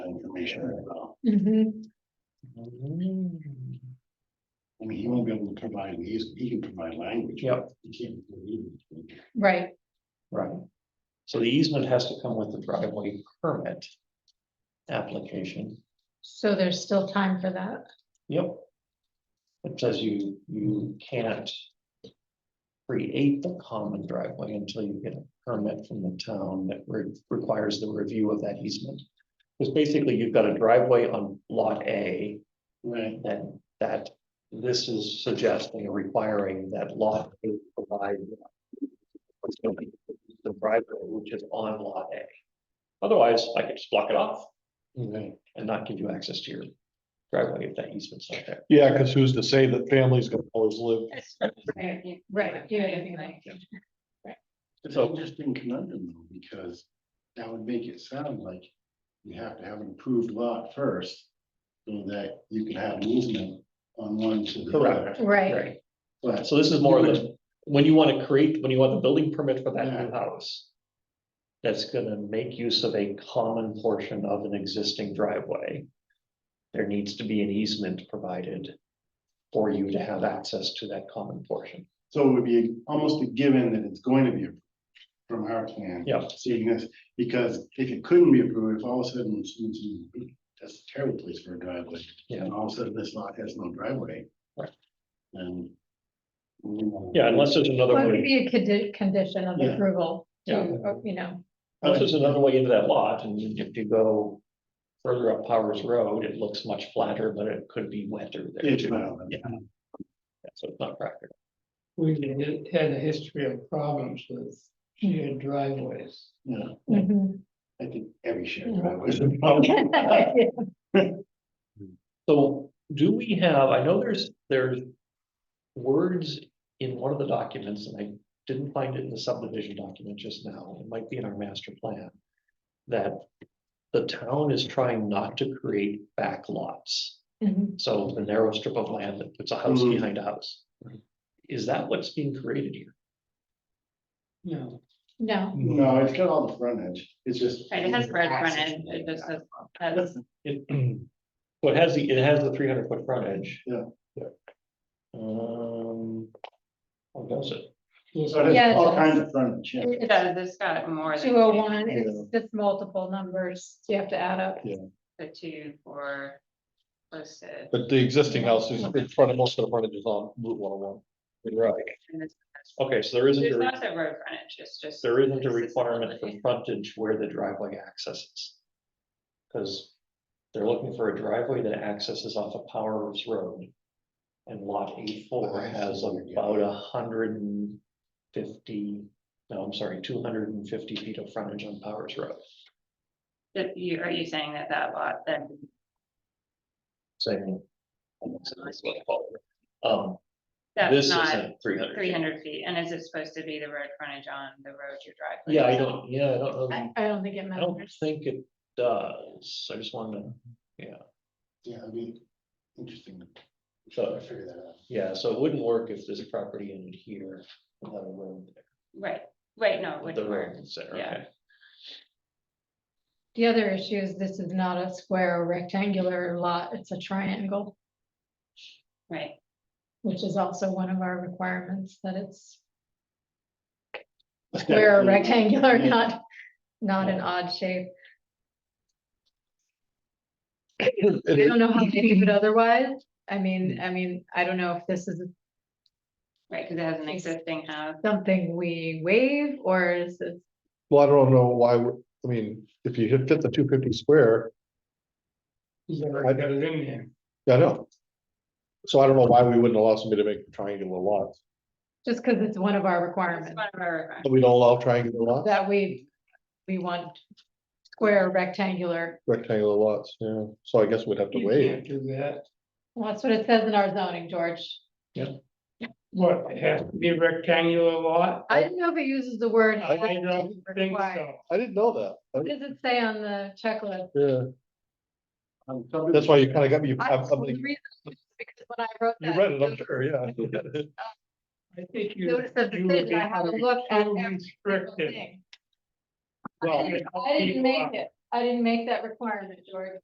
foundation as well. Mhm. Mm, I mean, he won't be able to provide, he's, he can provide language. Yep. He can't. do it. Right, Right. So the easement has to come with the driveway permit. Application, so there's still time for that. yep. It says you, you can't. Create the common driveway until you get a permit from the town that re- requires the review of that easement. Because basically you've got a driveway on lot A Right, and that this is suggesting or requiring that lot A provide. The driveway which is on lot A. Otherwise, I could just block it off right. and not give you access to your driveway if that easement's not there. Yeah, cause who's to say that families gonna always live? Right, yeah, yeah, yeah. It's So- an interesting conundrum though, because that would make it sound like you have to have an approved lot first. So that you can have an easement on one to the other, right, but So this is more of the, when you want to create, when you want the building permit for that new house. That's gonna make use of a common portion of an existing driveway. There needs to be an easement provided. For you to have access to that common portion. so it would be almost a given that it's going to be. approved From our plan. Yeah. Seeing this, because if it couldn't be approved, if all of a sudden, it's- it's- that's a terrible place for a driveway. Yeah. And all of a sudden, this lot has no driveway. Right. And. mm, Yeah, unless there's another Well, it could way, be a condi- condition of Yeah. approval to, Yeah. or, you know, unless there's another way into that lot, and if you go. Further up Powers Road, it looks much flatter, but it could be wetter there It's too, well, Yeah. so it's not practical. We've had- had a history of problems with shared driveways. yeah. mhm. I think every share. Yeah. driver is a problem. So do we have, I know there's, there's words in one of the documents, and I didn't find it in the subdivision document just now, it might be in our master plan. That the town is trying not to create back lots, Mhm. so the narrow strip of land that puts a house Mhm. behind a house. Is that what's being created here? No, No, No, it's got all the frontage, it's just. Right, it has red Access. frontage, it just says, has- It, well, it has the, it has the three hundred foot frontage. Yeah. Um, or does it? So it Yeah, it has all does. kinds of frontage, yeah. it it's does, it's got more than. two oh one, Yeah. it's just multiple numbers, you have to add up. The two for listed. But the existing house is in front of most of the frontage is on Route one oh one. Right. and this- Okay, so there Oh, isn't. There's a- not a road frontage, it's just. There isn't a accessibility. requirement for frontage where the driveway accesses. Cause they're looking for a driveway that accesses off of Powers Road. And lot eight four I has see, yeah. about a hundred and fifty, no, I'm sorry, two hundred and fifty feet of frontage on Powers Road. That you, are you saying that that lot, then, Saying. Um, that's this not isn't three hundred. three hundred feet, and is it supposed to be the road frontage on the road you drive? Yeah, I don't, yeah, I don't I, know. I don't think it I don't matters. think it does. I just wanted to. Yeah, I mean, interesting. So- I figure that out. Yeah, so it wouldn't work if this property ended here. without a road there. Right, right, no, it The wouldn't work, road is there, yeah. okay. The other issue is this is not a square or rectangular lot, it's a triangle, right, which is also one of our requirements, that it's square or rectangular, Yeah. not, not an odd shape. I don't know how they do it otherwise. I mean, I mean, I don't know if this is right, because it has an Yes. existing house, something we waive or is it? Well, I don't know why, we- I mean, if you hit fit the two fifty square, he's already got it in there. I know. So I don't know why we wouldn't allow somebody to make triangular lots, Just because it's one of our it's requirements one of our requirements. but we don't allow triangular lots, that we, we want square rectangular. rectangular lots, yeah, so I guess we'd have to You wait. can't do that. Well, that's what it says in our zoning, George. What, it has to be a rectangular lot? I didn't know if it uses the word. I has to don't be think required. so. I didn't know that, What I- does it say on the checklist? yeah, Um, somebody- that's why you kinda got me, I- I- I'm well, the thinking- reason is Because when I wrote you read it, I'm that sure, yeah. I think you. notice of you would decision, I be had to look at so every single restricted. thing. Well, I didn't- I didn't you make are. it. I didn't make that requirement, George.